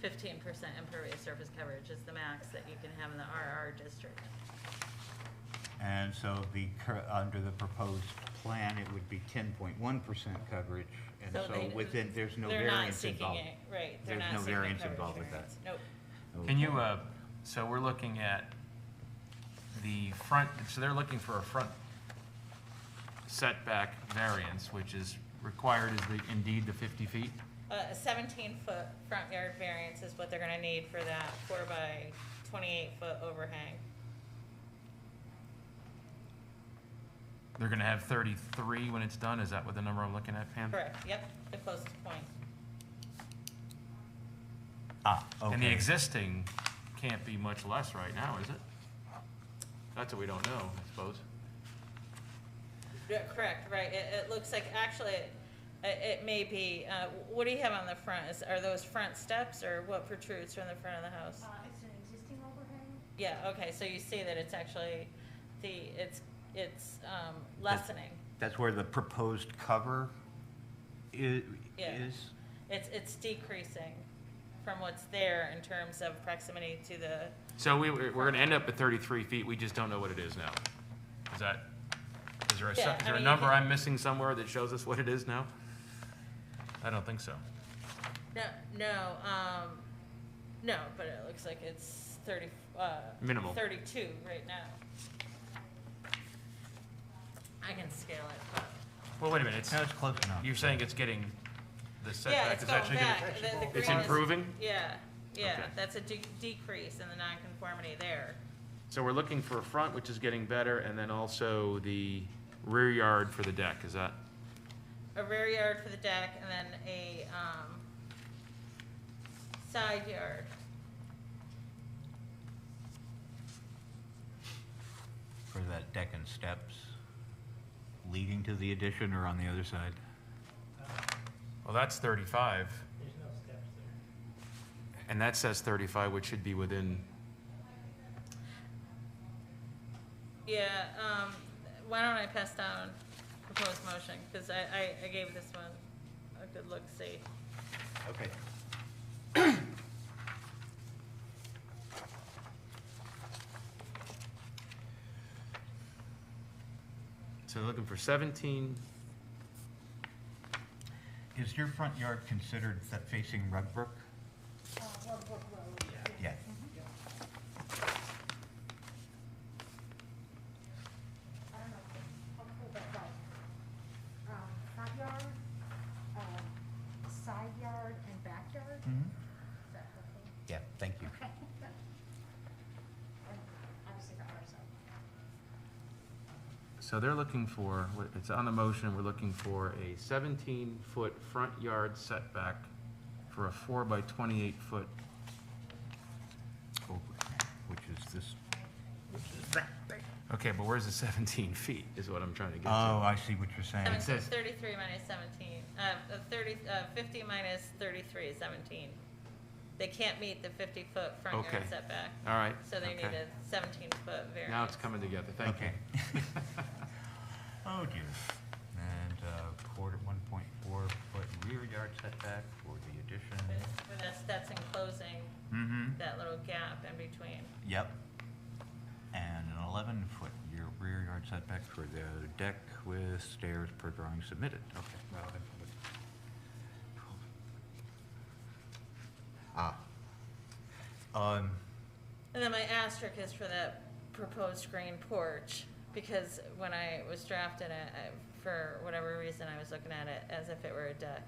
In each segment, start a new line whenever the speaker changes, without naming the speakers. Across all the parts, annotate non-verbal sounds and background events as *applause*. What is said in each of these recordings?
fifteen percent impervious surface coverage is the max that you can have in the RR district.
And so the, cur- under the proposed plan, it would be 10.1% coverage, and so
they-
within, there's no
they're not
variance
seeking
involved.
it, Right, they're
There's
not
no
seeking
variance
coverage
involved with
variance.
that.
Nope.
Can you,
Okay.
uh, so we're looking at the front, so they're looking for a front setback variance, which is required is the, indeed the 50 feet?
Uh, A 17-foot front yard variance is what they're going to need for that four by 28-foot overhang.
They're going to have 33 when it's done? Is that what the number I'm looking
Hmm.
at, Pam?
Correct, yep, the closest point.
Ah, okay.
And the existing can't be much less right now, is it? That's what we don't know, I suppose.
Yeah, Correct, right, it, it looks like, actually, it, it may be, uh, what do you have on the front? Is, are those front steps or what protrudes from the front of the house?
Uh, it's an existing overhang?
Yeah, okay, so you see that it's actually, the, it's, it's um, lessening.
That's where the proposed cover i-
Yeah.
is?
It's, it's decreasing from what's there in terms of proximity to the,
So we, we're going to end up at 33 feet, we just don't know what it is now. Is that, is there a,
Yeah,
so-
I
is there a
mean, you
number
can-
I'm missing somewhere that shows us what it is now? I don't think so.
no, no, um, no, but it looks like it's thirty, uh.
Minimal.
Thirty-two right now. I can scale it,
Well, wait a minute, it's,
No, it's close enough.
you're saying it's getting, the
but, yeah,
setback
it's
is
going
actually gonna.
back. The- the
It's
green is-
improving?
Yeah, yeah,
Okay.
that's a de- decrease in the nonconformity there.
So we're looking for a front, which is getting better, and then also the rear yard for the deck, is that?
a rear yard for the deck and then a, um, side yard.
For that deck and steps leading to the addition or on the other side?
Well, that's 35,
There's no steps there.
and that says 35, which should be within,
Yeah, um, why don't I pass down proposed motion, because I, I, I gave this one a good look, see.
Okay.
so looking for 17,
Is your front yard considered that facing Rugbrook?
Uh, Rugbrook Road.
Yeah.
I don't know, I'll pull that up. Um, front yard, um, side yard, and backyard?
Mm-hmm.
Mhm.
Mm-hmm.
Is that okay?
Yeah, thank you.
And Obviously, the ours are.
so they're looking for, it's on the motion, we're looking for a 17-foot front yard setback for a 4 by 28-foot,
Which is this,
okay, but where's the 17 feet, is what I'm trying to get
oh,
to.
I see what you're saying.
Seven- says-
Thirty-three minus seventeen, uh, uh, thirty, uh, fifty minus thirty-three is seventeen. They can't meet the fifty-foot front yard
Okay.
setback.
All right,
So they need
okay.
a seventeen-foot variance.
Now it's coming together, thank you.
Okay. *laughs* Oh dear. And uh, quarter, 1.4 foot rear yard setback for the addition.
But that's, that's enclosing
Mm-hmm.
that little gap in between.
Yep. And an 11 foot year- rear yard setback for the deck with stairs per drawing submitted. Okay. well, then, but- Ah. Um,
And then my asterisk is for that proposed green porch, because when I was drafting it, I, for whatever reason, I was looking at it as if it were a deck.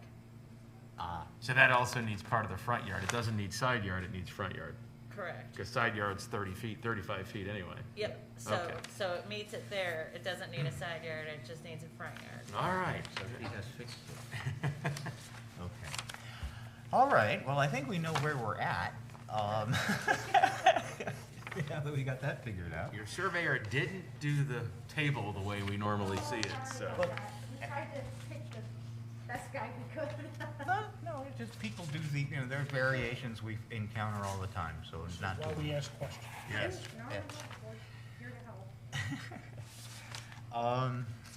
ah,
So that also needs part of the front yard. It doesn't need side yard, it needs front yard.
Correct.
Because side yard's 30 feet, 35 feet anyway.
Yep, so,
Okay.
so it meets it there, it doesn't need a side yard, it just needs a front yard.
All right.
so she has fixed it.
*laughs*
Okay. All right, well, I think we know where we're at. Um, *laughs* Now that we got that figured out.
Your surveyor didn't do the table the way we normally see it, so.
Well, We tried to pick the best guy we could.
No, Uh-huh, no, it's just people do the, you know, there are variations we encounter all the time, so it's not.
Why
too-
we ask
*laughs*
questions.
Yes.
No, no, no, we're here to help.
Um,